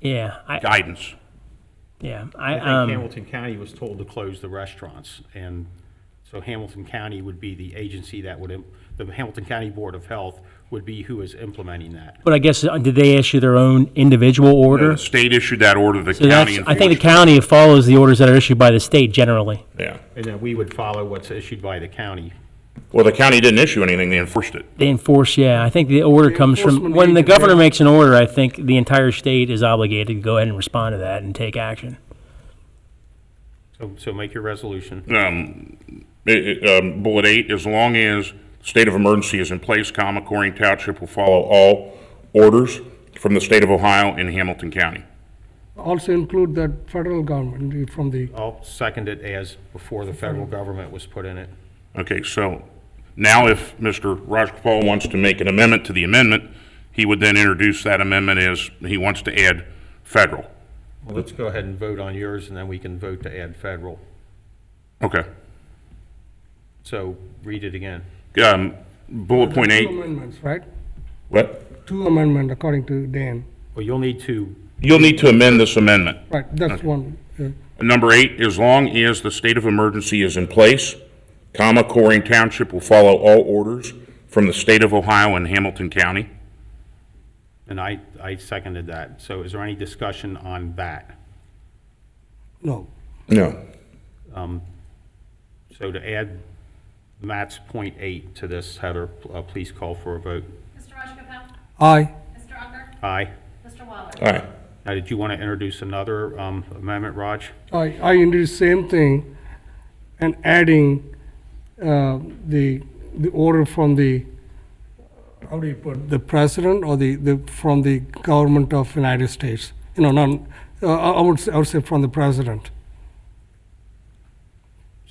Yeah, I, guidance. yeah, I, I think um, Hamilton County was told to close the restaurants, and so Hamilton County would be the agency that would, im- the Hamilton County Board of Health would be who is implementing that. but I guess, uh, did they issue their own individual order? The state issued that order, the So that's- county I think the enforced. county follows the orders that are issued by the state generally. Yeah. And then we would follow what's issued by the county. Well, the county didn't issue anything, they enforced it. They enforce, yeah, I think the order comes from, enforcement when the agency. governor makes an order, I think the entire state is obligated to go ahead and respond to that and take action. So, so make your resolution. Um, it- it, um, Bullet eight, as long as state of emergency is in place, comma, Corning Township will follow all orders from the state of Ohio and Hamilton County. Also include that federal government the- from the, I'll second it as before the federal government was put in it. Okay, so now if Mr. Rajagopal wants to make an amendment to the amendment, he would then introduce that amendment as he wants to add federal. Well, let's go ahead and vote on yours, and then we can vote to add federal. Okay. So read it again. Um, Bullet point two eight, amendments, right? What? Two amendment according to Dan, Well, you'll need to, you'll need to amend this amendment. right, that's one. uh, yeah. Number eight, as long as the state of emergency is in place, comma, Corning Township will follow all orders from the state of Ohio and Hamilton County. and I, I seconded that. So is there any discussion on that? No, No. So to add Matt's point eight to this header, uh, please call for a vote. Mr. Rajagopal? aye, Mr. Unger? Aye. Mr. Waller? All right. Now, did you want to introduce another um, amendment, Raj? I, I introduce same thing and adding, uh, the, the order from the, how do you put, the president or the, the, from the government of United States? You know, not, uh, I I would, say- I would say from the president.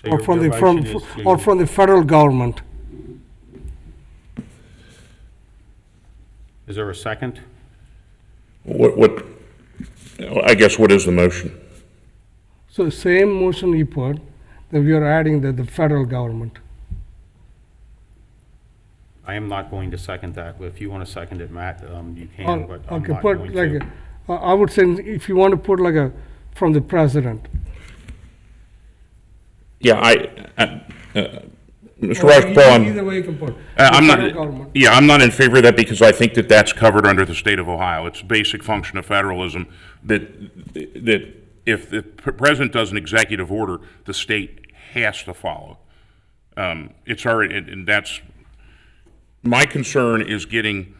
So Or your- from your the, from, motion is to- or from the federal government. Is there a second? What, what, I guess what is the motion? So same motion you put, that we are adding that the federal government. I am not going to second that. If you want to second it, Matt, um, you can, but I'm Oh, Okay, not put going like, to. a- I I would say, if you want to put like a, from the president. Yeah, I, I, uh, Mr. Either- Rajagopal, I'm- Either way you can put. Uh, I'm The federal not, government. yeah, I'm not in favor of that because I think that that's covered under the state of Ohio. It's a basic function of federalism that, that if the president does an executive order, the state has to follow. Um, It's already, and- and that's, my concern is getting,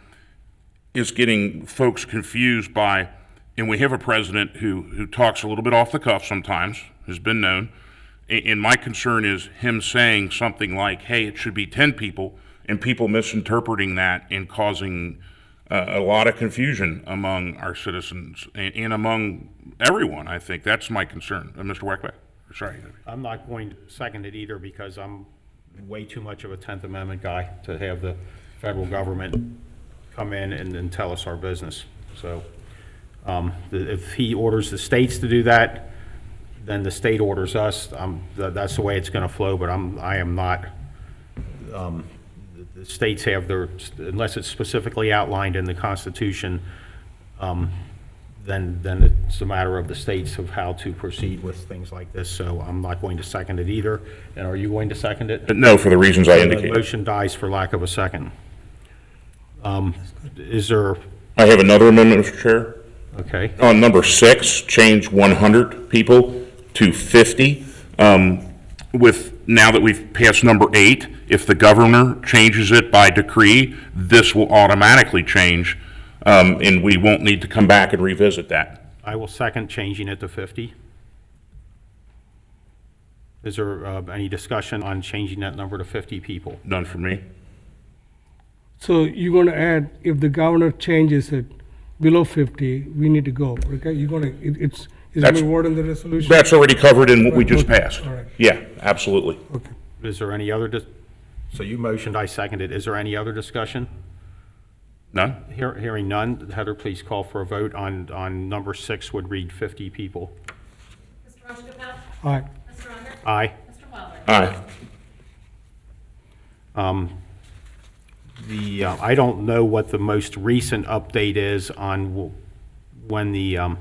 is getting folks confused by, and we have a president who, who talks a little bit off the cuff sometimes, has been known. And, and my concern is him saying something like, hey, it should be 10 people, and people misinterpreting that and causing uh, a lot of confusion among our citizens and, and among everyone, I think. That's my concern. Uh, Mr. Wackbeck, sorry. I'm not going to second it either because I'm way too much of a Tenth Amendment guy to have the federal government come in and then tell us our business. So um, the- if he orders the states to do that, then the state orders us. Um, tha- That's the way it's going to flow, but I'm, I am not, um, the- the states have their, unless it's specifically outlined in the Constitution, um, then, then it's a matter of the states of how to proceed with things like this, so I'm not going to second it either. And are you going to second it? but no, for the reasons I The indicated. motion dies for lack of a second. Um, Is there, I have another amendment, Mr. Chair. okay, On number six, change 100 people to 50. um, with, now that we've passed number eight, if the governor changes it by decree, this will automatically change, um, and we won't need to come back and revisit that. I will second changing it to 50. Is there uh, any discussion on changing that number to 50 people? None for me. So you're going to add, if the governor changes it below fifty, we need to go, okay? You're going to, it's, is That's- it word in the resolution? That's already covered in what we just passed. All right. Yeah, absolutely. Okay. Is there any other, dis- so you motioned, I seconded, is there any other discussion? None? Hear- Hearing none, Heather, please call for a vote on, on number six would read 50 people. Mr. Rajagopal? Aye. Mr. Unger? Aye. Mr. Waller? Aye. The, uh, I don't know what the most recent update is on w- when the um,